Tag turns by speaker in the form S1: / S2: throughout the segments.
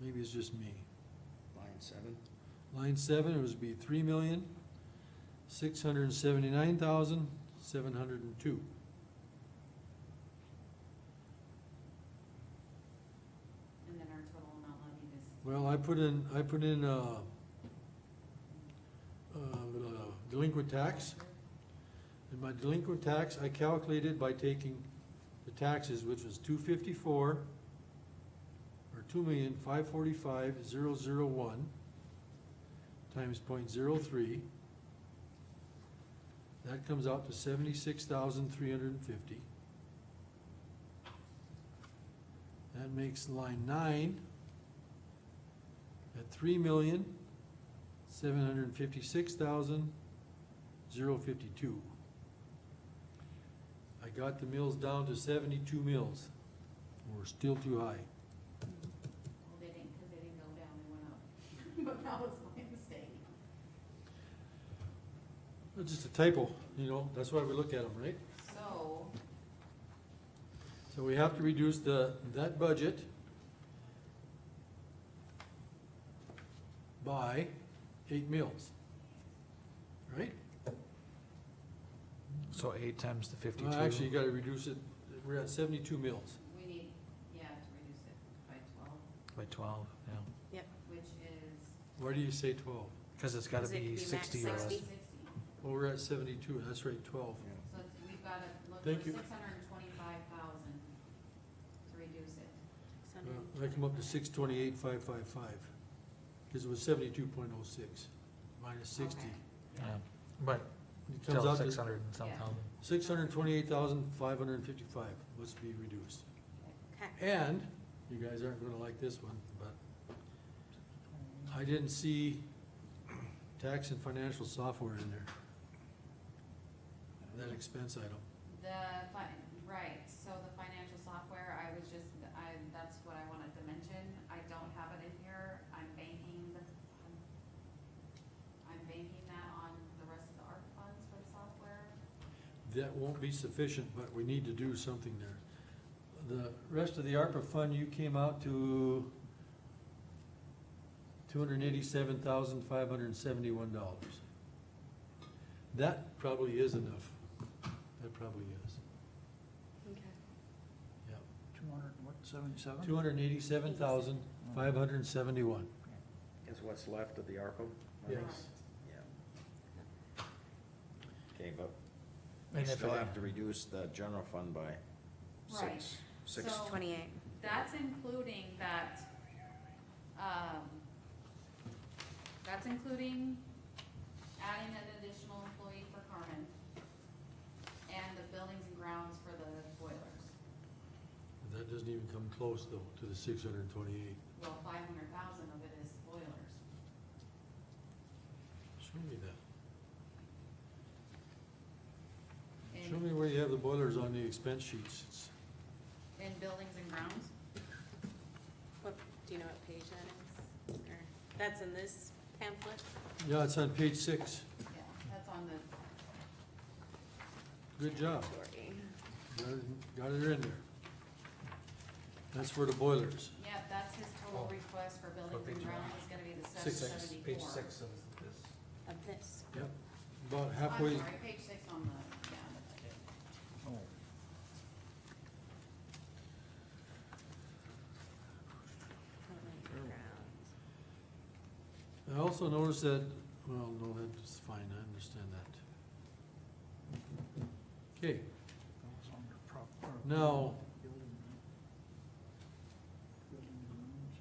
S1: maybe it's just me.
S2: Line seven?
S1: Line seven, it was be three million, six hundred and seventy-nine thousand, seven hundred and two.
S3: And then our total amount levied is,
S1: Well, I put in, I put in, uh, uh, delinquent tax. And my delinquent tax, I calculated by taking the taxes, which was two fifty-four, or two million, five forty-five, zero, zero, one, times point zero three. That comes out to seventy-six thousand, three hundred and fifty. That makes line nine at three million, seven hundred and fifty-six thousand, zero fifty-two. I got the mills down to seventy-two mills. We're still too high.
S3: well, they didn't, cause they didn't go down, they went up. But that was my mistake.
S1: It's just a typo, you know, that's why we look at them, right?
S3: So,
S1: So we have to reduce the, that budget by eight mills, right?
S4: So eight times the
S1: Well,
S4: fifty-two.
S1: Actually, you gotta reduce it, we're at seventy-two mills.
S3: we need, yeah, to reduce it by twelve,
S4: By twelve, yeah,
S3: which is.
S1: Why do you say twelve?
S4: because it's gotta
S5: Because it
S4: be
S5: could be max
S4: sixty or
S3: Max
S4: less.
S5: Sixty.
S3: Sixty,
S1: Well, we're at seventy-two, that's right, twelve.
S2: Yeah.
S3: so it's, we've gotta look for
S1: Thank you.
S3: six hundred and twenty-five thousand to reduce it.
S1: Uh, I come up to six twenty-eight, five five five, because it was seventy-two point oh six, minus sixty.
S3: Okay.
S4: Yeah, But
S1: It comes
S4: still
S1: out
S4: six
S1: to
S4: hundred and some
S3: Yeah.
S4: thousand.
S1: six hundred twenty-eight thousand, five hundred and fifty-five must be reduced.
S5: Okay.
S1: And, you guys aren't gonna like this one, but I didn't see tax and financial software in there, that expense item.
S3: The fi- right, so the financial software, I was just, I, that's what I wanted to mention, I don't have it in here, I'm banking the, I'm banking that on the rest of the ARC funds for the software.
S1: That won't be sufficient, but we need to do something there. The rest of the ARPA fund, you came out to two hundred and eighty-seven thousand, five hundred and seventy-one dollars. That probably is enough. That probably is, yeah.
S6: Two hundred, what, seventy-seven?
S1: Two hundred and eighty-seven thousand, five hundred and seventy-one.
S2: Is what's left of the ARPA? money?
S1: Yes.
S3: Correct.
S2: Yeah. Okay, but we
S4: And if
S2: still
S4: it-
S2: have to reduce the general fund by
S3: Right.
S2: six, six,
S3: So-
S5: Twenty-eight.
S3: That's including that, um, that's including adding an additional employee for Carmen and the buildings and grounds for the boilers.
S1: That doesn't even come close though to the six hundred and twenty-eight.
S3: Well, five hundred thousand of it is boilers.
S1: Show me that. Show me
S3: In,
S1: where you have the boilers on the expense sheets. It's-
S3: in buildings and grounds?
S5: What, do you know what page that is? Or, that's in this pamphlet?
S1: Yeah, it's on page six.
S3: Yeah, that's on the,
S1: Good job.
S5: Sorry.
S1: Got it- Got it in there. That's for the boilers.
S3: yeah, that's his total
S4: Oh.
S3: request for
S4: What
S3: buildings and
S4: page am I
S3: grounds
S4: on?
S3: is gonna be the seven
S1: Six.
S3: seventy-four.
S4: Page six of this.
S5: Of this.
S1: Yep. About
S3: I'm
S1: halfway,
S3: sorry, page six on the, yeah, on the budget.
S6: Oh.
S1: I also noticed that, well, no, that's fine, I understand that. Okay,
S6: That was under prop- or
S1: now,
S6: building and- building and grounds.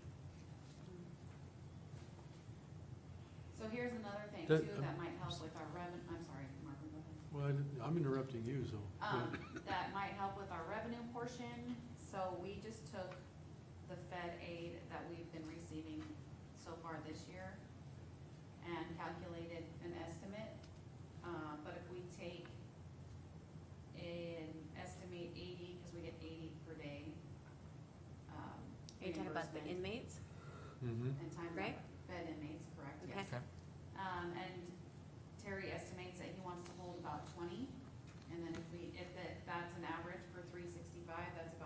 S3: So here's another thing
S1: That- um,
S3: too, that might help with our revenue, I'm sorry, Marvin, go ahead.
S1: well, I didn't- I'm interrupting you, so.
S3: Um, that might help with our revenue portion, so we just took the Fed aid that we've been receiving so far this year and calculated an estimate, uh, but if we take an estimate eighty, cause we get eighty per day, um,
S5: Are you talking about the
S3: reimbursement
S5: inmates?
S1: Mhm.
S3: And time of
S5: right?
S3: Fed inmates, correct,
S5: Okay.
S3: yes.
S4: Okay.
S3: Um, and Terry estimates that he wants to hold about twenty, and then if we, if that, that's an average for three sixty-five, that's